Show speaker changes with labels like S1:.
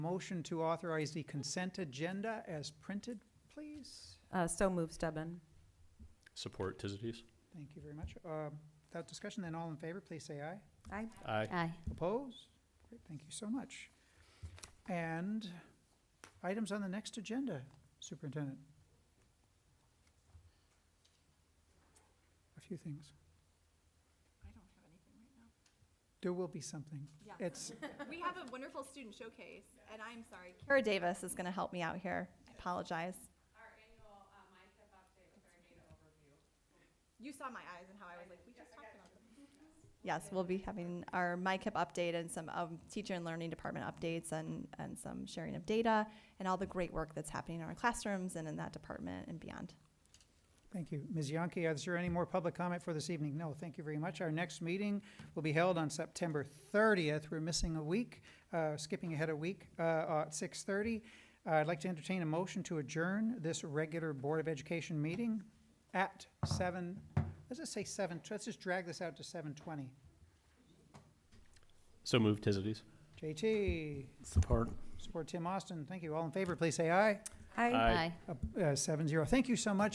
S1: Motion to authorize the consent agenda as printed, please.
S2: Uh, So moved, Stebbin.
S3: Support Tizities.
S1: Thank you very much. Um, Without discussion, then all in favor, please say aye.
S2: Aye.
S3: Aye.
S4: Aye.
S1: Opposed? Great, thank you so much. And items on the next agenda, Superintendent? A few things.
S5: I don't have anything right now.
S1: There will be something.
S5: Yeah.
S1: It's,
S5: We have a wonderful student showcase, and I'm sorry. Kara Davis is going to help me out here. I apologize. Our annual MyKIP update with our data overview. You saw my eyes and how I was like, we just talked about this. Yes, we'll be having our MyKIP update and some um, teacher and learning department updates and, and some sharing of data and all the great work that's happening in our classrooms and in that department and beyond.
S1: thank you. Ms. Yonke, is there any more public comment for this evening? No, thank you very much. Our next meeting will be held on September 30th. We're missing a week, uh, skipping ahead a week, uh, uh, at 6:30. Uh, I'd like to entertain a motion to adjourn this regular Board of Education meeting at 7, let's just say 7, let's just drag this out to 7:20.
S3: So moved Tizities.
S1: JT,
S3: Support.
S1: support Tim Austin. Thank you. All in favor, please say aye.
S2: Aye.
S3: Aye.
S1: Uh, uh, Seven zero. Thank you so much.